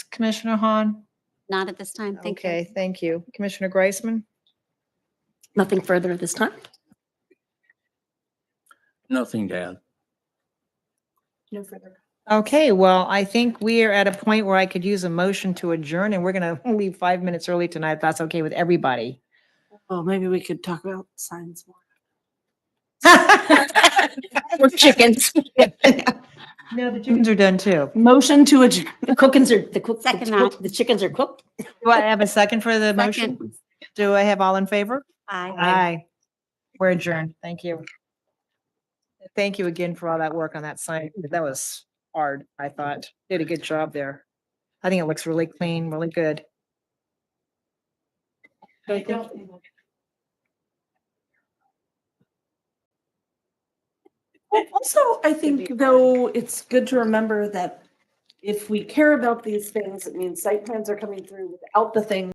Commissioner Hahn? Not at this time. Thank you. Okay, thank you. Commissioner Greisman? Nothing further at this time. Nothing to add. No further. Okay, well, I think we are at a point where I could use a motion to adjourn, and we're going to leave five minutes early tonight, if that's okay with everybody. Well, maybe we could talk about signs more. We're chickens. No, the chickens are done too. Motion to adjourn. The cookins are, the cook, Second the cook- the chickens are cooked. Do I have a second for the motion? Second. Do I have all in favor? Aye. Aye. We're adjourned. Thank you. Thank you again for all that work on that sign. That was hard, I thought. Did a good job there. I think it looks really clean, really good. Well, also, I think though, it's good to remember that if we care about these things, it means site plans are coming through without the things